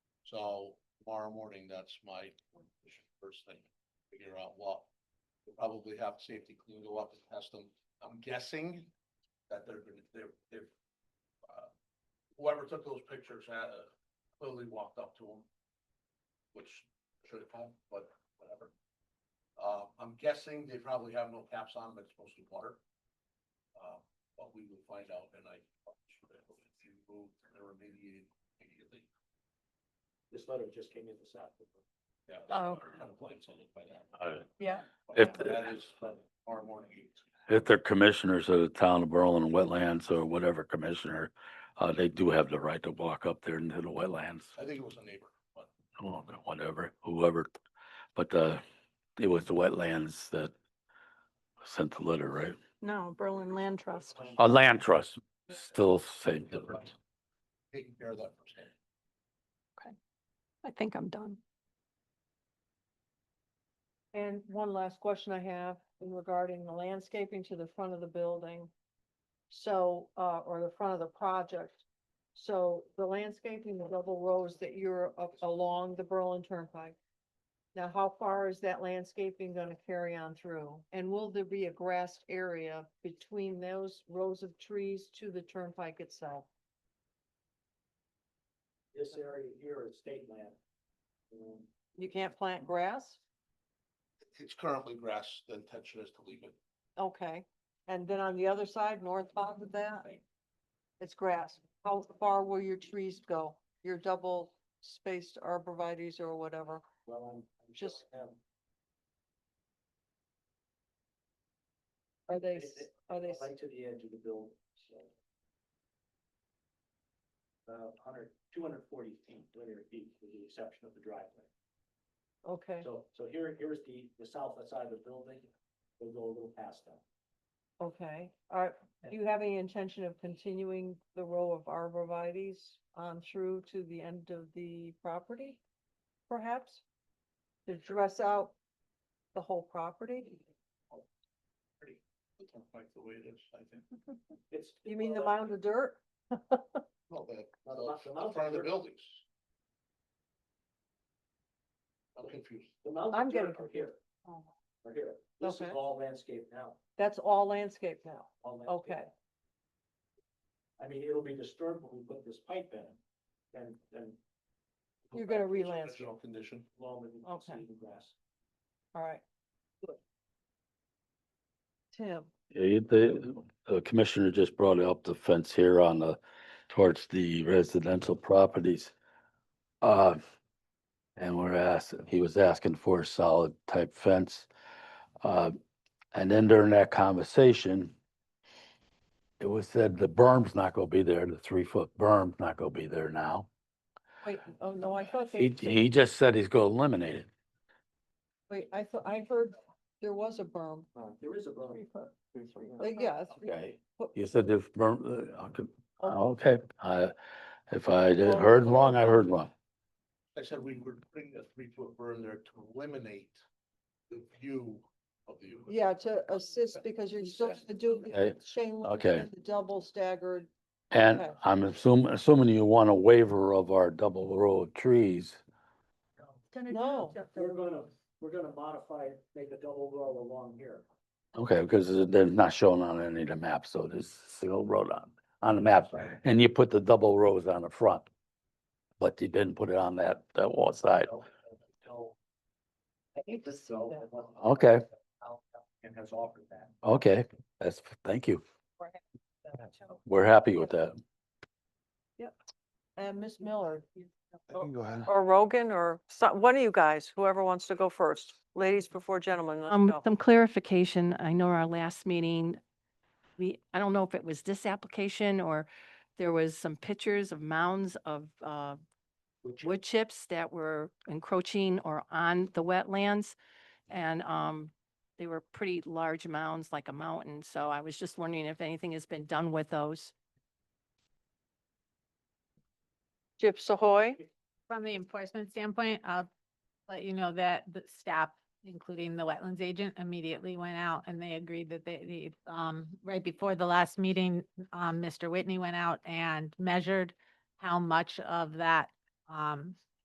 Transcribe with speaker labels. Speaker 1: So tomorrow morning, that's my first thing, figure out what. we'll Probably have safety clean go up and test them. I'm guessing that they're, gonna- they're, they're. uh, Whoever took those pictures had uh, clearly walked up to them. Which should have come, but whatever. Uh, I'm guessing they probably have no caps on, but it's mostly water. Uh, but we will find out and I. If you move, they're remediated immediately.
Speaker 2: This letter just came in this afternoon.
Speaker 1: Yeah.
Speaker 3: Oh.
Speaker 4: uh,
Speaker 3: Yeah.
Speaker 4: If-
Speaker 1: That is tomorrow morning.
Speaker 4: If they're commissioners of the town of Berlin Wetlands or whatever commissioner, uh, they do have the right to walk up there into the wetlands,
Speaker 1: I think it was a neighbor, but
Speaker 4: or whatever, whoever. But, uh, it was the wetlands that sent the letter, right?
Speaker 3: No, Berlin Land Trust.
Speaker 4: A land trust, still same difference.
Speaker 1: taking care of that firsthand.
Speaker 3: I think I'm done.
Speaker 5: And one last question I have in regarding the landscaping to the front of the building. So, uh, or the front of the project. So the landscaping, the double rows that you're up along the Berlin Turnpike. Now, how far is that landscaping gonna carry on through? And will there be a grassed area between those rows of trees to the turnpike itself?
Speaker 2: This area here is state land. Um,
Speaker 5: You can't plant grass?
Speaker 1: It's currently grass, the intention is to leave it.
Speaker 5: Okay, and then on the other side, northbound of that, it's grass. How far will your trees go? Your double spaced arborvitae's or whatever?
Speaker 2: Well, I'm, I'm sure
Speaker 5: Just-
Speaker 2: I have-
Speaker 5: Are they,
Speaker 2: They-
Speaker 5: s-
Speaker 2: they-
Speaker 5: are they, s-
Speaker 2: Right to the edge of the building, so. About hundred, two hundred forty feet, linear feet, with the exception of the driveway.
Speaker 5: okay,
Speaker 2: So, so here, here's the, the south side of the building, we'll go a little past that.
Speaker 5: okay. Are, do you have any intention of continuing the row of arborvitae's on through to the end of the property? Perhaps? To dress out the whole property?
Speaker 1: Pretty, the turnpike the way it is, I think.
Speaker 2: It's.
Speaker 5: You mean the
Speaker 2: well,
Speaker 5: mound of dirt?
Speaker 1: No, the,
Speaker 2: Now, the mou- the
Speaker 1: the
Speaker 2: mountain
Speaker 1: uh, front of the
Speaker 2: dirt-
Speaker 1: buildings. I'm confused.
Speaker 2: The mounds
Speaker 5: I'm
Speaker 2: of dirt
Speaker 5: getting
Speaker 2: are here,
Speaker 5: Oh,
Speaker 2: are here. This is
Speaker 5: Okay.
Speaker 2: all landscape now.
Speaker 5: That's all landscape now.
Speaker 2: all landscape.
Speaker 5: Okay,
Speaker 2: I mean, it'll be disturbed when we put this pipe in and, and
Speaker 1: Go
Speaker 5: You're
Speaker 1: back
Speaker 5: gonna
Speaker 1: to its
Speaker 5: relance it.
Speaker 1: original Condition.
Speaker 2: loam and
Speaker 5: Okay.
Speaker 2: seed and grass.
Speaker 5: all right. Good. Tim,
Speaker 4: Yeah, The, the commissioner just brought up the fence here on the, towards the residential properties. Uh, and we're asked, he was asking for a solid type fence. Uh, and then during that conversation, it was said the berm's not gonna be there, the three foot berm's not gonna be there now.
Speaker 5: wait, oh no, I thought they,
Speaker 4: He, he just said he's gonna eliminate it.
Speaker 5: wait, I thought, I heard there was a berm.
Speaker 2: Uh, There is a berm.
Speaker 5: Uh, Yeah. it's-
Speaker 4: Okay.
Speaker 5: What-
Speaker 4: You said if berm, uh, okay,
Speaker 5: oh,
Speaker 4: okay, I, if I did- heard wrong, I heard wrong.
Speaker 1: I said we were putting a three foot burn there to eliminate the view of the.
Speaker 5: Yeah, to assist because you're still gonna do
Speaker 4: Okay,
Speaker 5: chain link
Speaker 4: okay.
Speaker 5: and the double staggered.
Speaker 4: And
Speaker 5: Okay.
Speaker 4: I'm assuming, assuming you want a waiver of our double row of trees.
Speaker 5: No,
Speaker 2: We're gonna, we're gonna modify, it, make a double row along here.
Speaker 4: Okay, because it- they're not shown on any of the maps, so there's a single road on, on the map. And you put the double rows on the front. But you didn't put it on that, that wall side.
Speaker 2: I think this. Okay.
Speaker 4: Okay.
Speaker 2: And has offered that.
Speaker 4: Okay, that's, thank you. We're happy with that.
Speaker 5: and Miss Miller.
Speaker 4: Go ahead.
Speaker 5: Or Rogan or some, one of you guys, whoever wants to go first. Ladies before gentlemen, let's
Speaker 6: Um,
Speaker 5: go.
Speaker 6: some clarification. I know our last meeting, we, I don't know if it was this application or there was some pictures of mounds of, uh, wood chips that were encroaching or on the wetlands. And, um, they were pretty large mounds, like a mountain. So I was just wondering if anything has been done with those.
Speaker 5: Chips Ahoy.
Speaker 7: From the enforcement standpoint, I'll let you know that the staff, including the wetlands agent, immediately went out and they agreed that they, they, um, right before the last meeting, um, Mr. Whitney went out and measured how much of that, um,